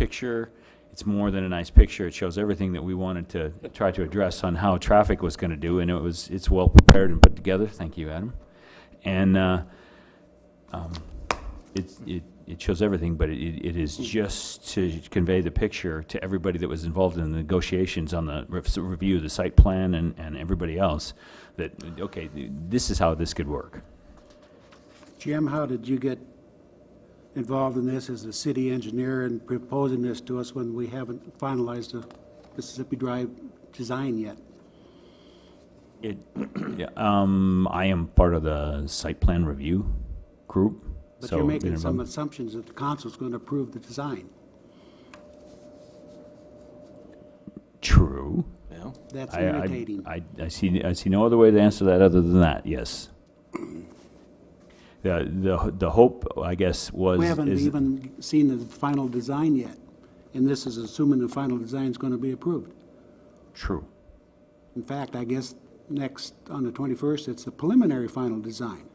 picture. It's more than a nice picture. It shows everything that we wanted to try to address on how traffic was gonna do, and it was, it's well prepared and put together. Thank you, Adam. And, uh, um, it, it, it shows everything, but it, it is just to convey the picture to everybody that was involved in the negotiations on the re- review, of the site plan and, and everybody else, that, okay, this is how this could work. Jim, how did you get involved in this as a city engineer and proposing this to us when we haven't finalized the Mississippi Drive design yet? It, yeah, um, I am part of the site plan review group, But so. you're making you know, some assumptions that the council's going to approve the design. True. Yeah. That's I- I- irritating. I, I see, I see no other way to answer that other than that, yes. The, the, the hope, I guess, was. We haven't is- even seen the final design yet, and this is assuming the final design's going to be approved. True. In fact, I guess next, on the 21st, it's the preliminary final design.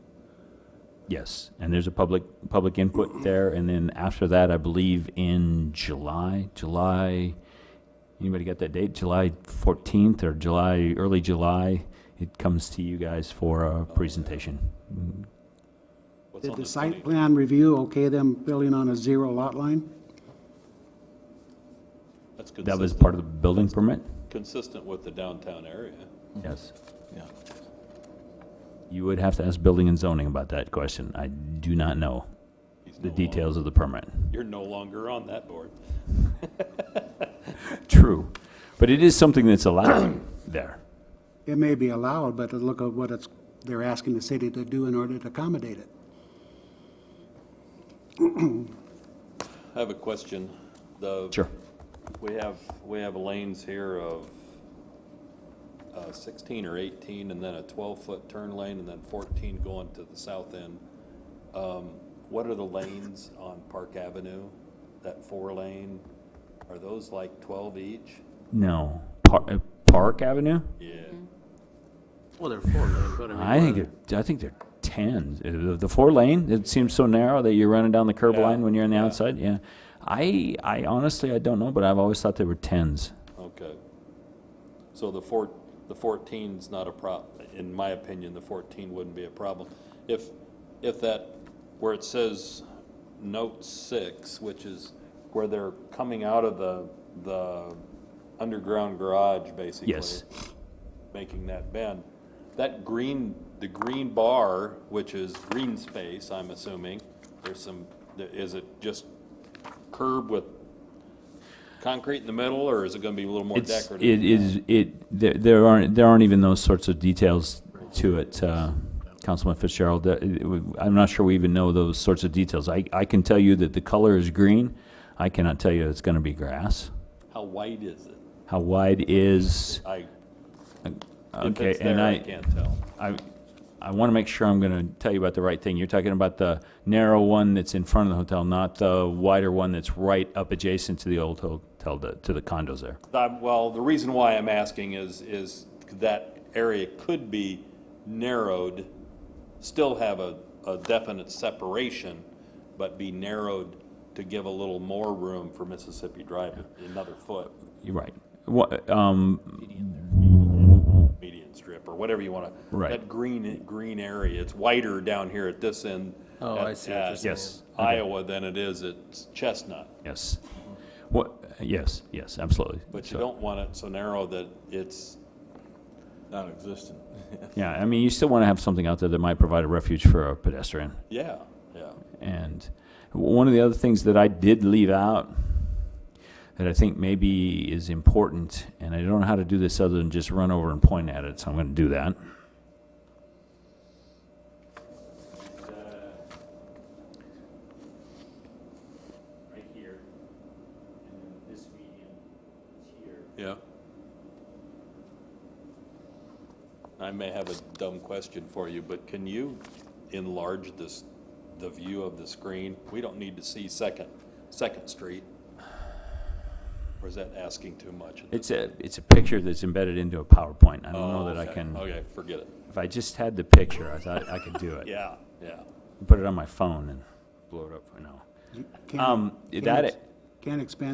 Yes, and there's a public, public input there, and then after that, I believe in July, July, anybody got that date? July fourteenth or July, early July, it comes to you guys for a presentation. What's Did on the the site 20 plan review okay them building on a zero lot line? That's That was consistent- part of the building permit? Consistent with the downtown area. Yes. Yeah. You would have to ask building and zoning about that question. I do not know He's no the longer- details of the permit. You're no longer on that board. True, but it is something that's allowed there. It may be allowed, but look at what it's, they're asking the city to do in order to accommodate it. I have a question. The. Sure. We have, we have lanes here of uh, sixteen or eighteen, and then a twelve-foot turn lane, and then fourteen going to the south end. Um, What are the lanes on Park Avenue? That four-lane, are those like twelve each? No, Par- uh, Park Avenue? Yeah. Well, they're four lane, but I mean. I think they're, I think they're ten. Uh, The, the four lane, it seems so narrow that you're running down the curb Yeah, line when you're on the yeah. outside. Yeah, I I honestly I don't know, but I've always thought they were tens. Okay. So the four, the fourteen's not a prob, in my opinion, the fourteen wouldn't be a problem. If, if that, where it says note six, which is where they're coming out of the, the underground garage, basically. Yes. Making that bend, that green, the green bar, which is green space, I'm assuming, there's some, is it just curb with concrete in the middle, or is it gonna be a little more It's decorative? it is it there, there aren't there aren't even those sorts of details to it. Uh, Councilman Fitzgerald, uh, it- it- I'm not sure we even know those sorts of details. I, I can tell you that the color is green. I cannot tell you it's going to be grass. How wide is it? How wide is I, if okay? it's there, I, I can't tell. I, I want to make sure I'm going to tell you about the right thing. You're talking about the narrow one that's in front of the hotel, not the wider one that's right up adjacent to the old hotel, to- to the condos there. Uh, Well, the reason why I'm asking is, is that area could be narrowed, still have a, a definite separation, but be narrowed to give a little more room for Mississippi Drive, another foot, You're right. What, um, median strip, or whatever you wanna. Right. That green, green area, it's wider down here at this end. Oh, at- I see what you're at saying. Yes. Okay. Iowa than it is at Chestnut. yes. What, yes, yes, absolutely. But you So- don't want it so narrow that it's, Non-existent. Yeah, I mean, you still want to have something out there that might provide a refuge for a pedestrian. yeah, yeah. And w- one of the other things that I did leave out that I think maybe is important, and I don't know how to do this other than just run over and point at it, so I'm going to do that. Right here, and then this median is here. Yeah. I may have a dumb question for you, but can you enlarge this, the view of the screen? We don't need to see Second, Second Street. Or is that asking too much? It's a, it's a picture that's embedded into a PowerPoint. I don't know that I Oh, Okay, can, Okay, forget it. if I just had the picture, I thought I could do it. Yeah, yeah. Put it on my phone and blow it up, I know. You can't- Um, can't that- ex- Can't expand